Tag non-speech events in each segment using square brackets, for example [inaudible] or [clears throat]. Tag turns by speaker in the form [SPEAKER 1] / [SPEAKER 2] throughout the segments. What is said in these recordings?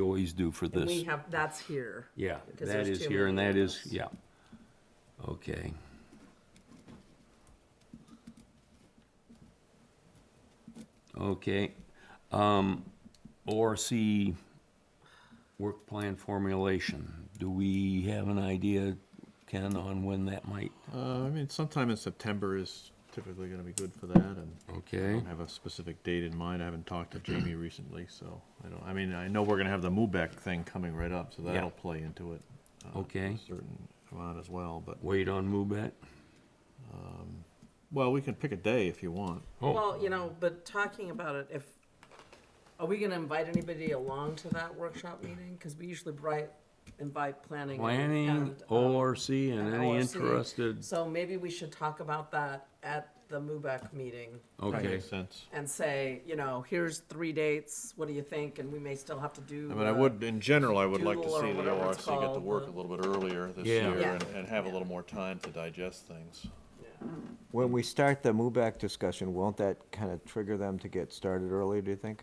[SPEAKER 1] always do for
[SPEAKER 2] And we
[SPEAKER 1] this.
[SPEAKER 2] have, that's here.
[SPEAKER 1] Yeah,
[SPEAKER 2] because
[SPEAKER 1] that is
[SPEAKER 2] there's too
[SPEAKER 1] here and
[SPEAKER 2] many
[SPEAKER 1] that
[SPEAKER 2] of
[SPEAKER 1] is,
[SPEAKER 2] those.
[SPEAKER 1] yeah. Okay. Okay, um, ORC work plan formulation. Do we have an idea, Ken, on when that might?
[SPEAKER 3] Uh, I mean, sometime in September is typically gonna be good for that, and I
[SPEAKER 1] Okay,
[SPEAKER 3] don't have a specific date in mind, I haven't talked to [clears throat] Jamie recently, so I don't, I mean, I know we're gonna have the MUBEC thing coming right up, so
[SPEAKER 1] Yeah.
[SPEAKER 3] that'll play into it. uh, to
[SPEAKER 1] Okay.
[SPEAKER 3] A certain amount as well, but,
[SPEAKER 1] wait on MUBET?
[SPEAKER 3] well, we can pick a day if you want.
[SPEAKER 1] Oh,
[SPEAKER 2] Well, you know, but talking about it, if, are we gonna invite anybody along to that workshop meeting? Cause we usually invite, invite planning. and-
[SPEAKER 1] planning,
[SPEAKER 2] and, um,
[SPEAKER 1] ORC, and
[SPEAKER 2] and
[SPEAKER 1] any
[SPEAKER 2] ORC.
[SPEAKER 1] interested,
[SPEAKER 2] So maybe we should talk about that at the MUBEC meeting
[SPEAKER 3] That
[SPEAKER 1] okay.
[SPEAKER 3] Makes sense.
[SPEAKER 2] and say, you know, here's three dates, what do you think? And we may still have to do.
[SPEAKER 3] I mean, I
[SPEAKER 2] the-
[SPEAKER 3] would, in general, I would like to
[SPEAKER 2] doodle or
[SPEAKER 3] see the
[SPEAKER 2] whatever
[SPEAKER 3] ORC
[SPEAKER 2] it's
[SPEAKER 3] get to
[SPEAKER 2] called,
[SPEAKER 3] work a
[SPEAKER 2] the-
[SPEAKER 3] little bit earlier this
[SPEAKER 1] Yeah.
[SPEAKER 3] year
[SPEAKER 2] Yeah.
[SPEAKER 3] and, and have a little more time to digest things.
[SPEAKER 2] Yeah.
[SPEAKER 4] When we start the MUBEC discussion, won't that kind of trigger them to get started early, do you think?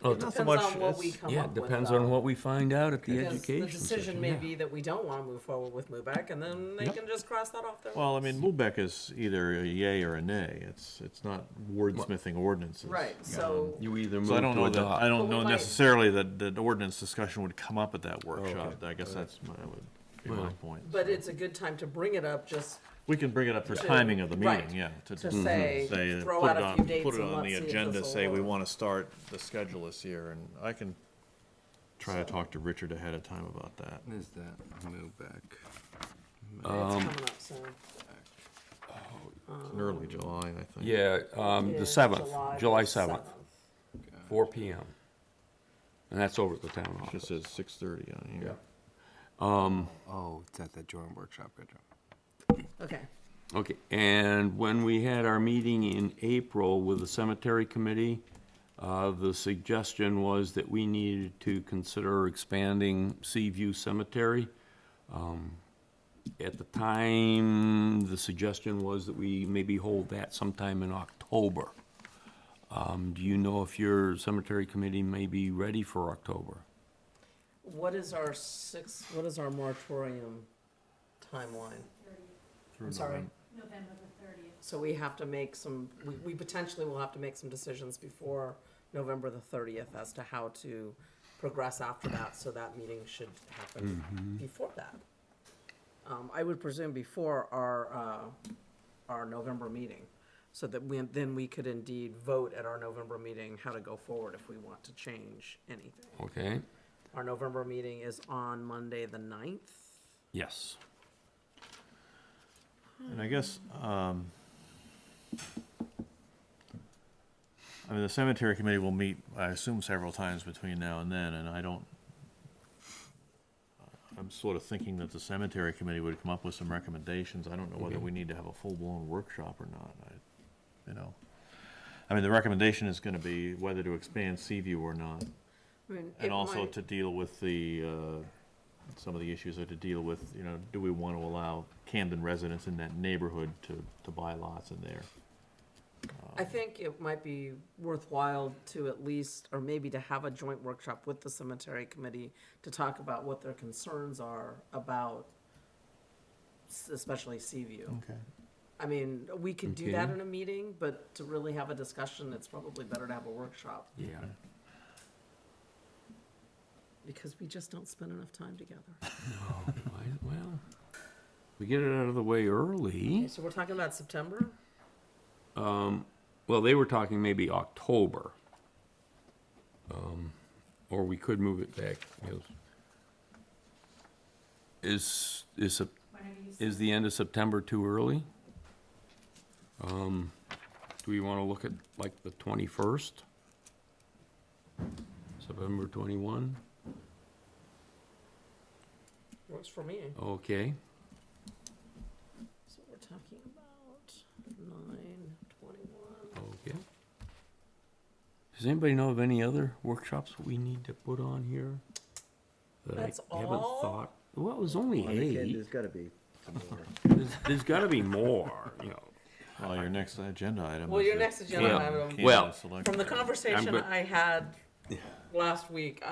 [SPEAKER 1] Oh,
[SPEAKER 2] It
[SPEAKER 3] Not so
[SPEAKER 2] Depends
[SPEAKER 3] much
[SPEAKER 2] on what
[SPEAKER 3] as-
[SPEAKER 2] we come
[SPEAKER 1] Yeah,
[SPEAKER 2] up
[SPEAKER 1] it
[SPEAKER 2] with.
[SPEAKER 1] depends
[SPEAKER 2] though.
[SPEAKER 1] on what we find out at the
[SPEAKER 2] Because
[SPEAKER 1] education
[SPEAKER 2] The decision
[SPEAKER 1] session,
[SPEAKER 2] may
[SPEAKER 1] yeah.
[SPEAKER 2] be that we don't want to move forward with MUBEC, and then they can just cross that off their.
[SPEAKER 3] Well, I mean, MUBEC is either a yay or a nay, it's, it's not wordsmithing ordinances.
[SPEAKER 2] Right, so,
[SPEAKER 1] You either
[SPEAKER 3] So I don't know that, I
[SPEAKER 2] But
[SPEAKER 3] don't
[SPEAKER 2] we
[SPEAKER 3] know
[SPEAKER 2] might-
[SPEAKER 3] necessarily that, that ordinance discussion would come up at that
[SPEAKER 1] Oh,
[SPEAKER 3] workshop. I guess that's my, would be my
[SPEAKER 1] Well.
[SPEAKER 3] point.
[SPEAKER 2] but it's a good time to bring it up just
[SPEAKER 3] We can bring it up for
[SPEAKER 2] To-
[SPEAKER 3] timing of the
[SPEAKER 2] right,
[SPEAKER 3] meeting, yeah.
[SPEAKER 2] to say,
[SPEAKER 3] say,
[SPEAKER 2] throw
[SPEAKER 3] put
[SPEAKER 2] out
[SPEAKER 3] it
[SPEAKER 2] a
[SPEAKER 3] on-
[SPEAKER 2] few dates
[SPEAKER 3] Put it
[SPEAKER 2] and
[SPEAKER 3] on the
[SPEAKER 2] let's see if
[SPEAKER 3] agenda,
[SPEAKER 2] this'll
[SPEAKER 3] say we
[SPEAKER 2] work.
[SPEAKER 3] wanna start, the schedule is here, and I can try to talk to Richard ahead of time about that.
[SPEAKER 5] What is that? Move back.
[SPEAKER 2] it's
[SPEAKER 1] Um,
[SPEAKER 2] coming up soon.
[SPEAKER 3] It's in early July, I think.
[SPEAKER 1] Uh, Yeah, um,
[SPEAKER 2] Yeah,
[SPEAKER 1] the seventh, July
[SPEAKER 2] the
[SPEAKER 1] seventh, four P M. And that's over at the town
[SPEAKER 3] It just
[SPEAKER 1] office.
[SPEAKER 3] says six thirty on here.
[SPEAKER 5] Oh, it's at the drawing workshop. Good job.
[SPEAKER 2] Okay,
[SPEAKER 1] Okay, and when we had our meeting in April with the cemetery committee, uh, the suggestion was that we needed to consider expanding Seaview Cemetery. Um, At the time, the suggestion was that we maybe hold that sometime in October. Um, do you know if your cemetery committee may be ready for October?
[SPEAKER 2] what is our six, what is our moratorium timeline? I'm sorry,
[SPEAKER 6] November the thirtieth.
[SPEAKER 2] so we have to make some, we, we potentially will have to make some decisions before November the thirtieth as to how to progress after that, so that meeting should happen before that. Um, I would presume before our, uh, our November meeting, so that we, then we could indeed vote at our November meeting how to go forward if we want to change anything.
[SPEAKER 1] Okay,
[SPEAKER 2] Our November meeting is on Monday, the ninth.
[SPEAKER 1] yes.
[SPEAKER 3] And I guess, um, I mean, the cemetery committee will meet, I assume, several times between now and then, and I don't, I'm sort of thinking that the cemetery committee would come up with some recommendations. I don't know whether we need to have a full-blown workshop or not, I, you know. I mean, the recommendation is gonna be whether to expand Seaview or not,
[SPEAKER 2] I mean, it
[SPEAKER 3] and also
[SPEAKER 2] might-
[SPEAKER 3] to deal with the, uh, some of the issues are to deal with, you know, do we want to allow Camden residents in that neighborhood to, to buy lots in there?
[SPEAKER 2] I think it might be worthwhile to at least, or maybe to have a joint workshop with the cemetery committee to talk about what their concerns are about, s- especially Seaview.
[SPEAKER 3] Okay.
[SPEAKER 2] I mean, we could do that
[SPEAKER 1] Okay.
[SPEAKER 2] in a meeting, but to really have a discussion, it's probably better to have a workshop
[SPEAKER 1] Yeah,
[SPEAKER 2] because we just don't spend enough time together.
[SPEAKER 1] I- Oh, well, we get it out of the way early.
[SPEAKER 2] Okay, so we're talking about September?
[SPEAKER 1] Well, they were talking maybe October. Um, Or we could move it back. you know. Is, is, Sep-
[SPEAKER 6] Whenever you
[SPEAKER 1] is the end of September too early? Um, Do we want to look at like the 21st? September 21?
[SPEAKER 2] Works for me.
[SPEAKER 1] Okay,
[SPEAKER 2] So we're talking about nine, twenty-one.
[SPEAKER 1] okay. Does anybody know of any other workshops we need to put on here? that I
[SPEAKER 2] That's
[SPEAKER 1] haven't
[SPEAKER 2] all? Oh
[SPEAKER 1] thought? Well, it was only eight.
[SPEAKER 4] There's gotta be.
[SPEAKER 1] There's, there's got to be more, you know.
[SPEAKER 3] Well, your next agenda item.
[SPEAKER 2] Well,
[SPEAKER 3] is
[SPEAKER 2] your
[SPEAKER 3] the
[SPEAKER 2] next agenda
[SPEAKER 3] Camden
[SPEAKER 2] item-
[SPEAKER 3] Camden
[SPEAKER 1] Well,
[SPEAKER 3] Select
[SPEAKER 2] From the
[SPEAKER 3] Board.
[SPEAKER 2] conversation
[SPEAKER 1] good.
[SPEAKER 2] I had last week,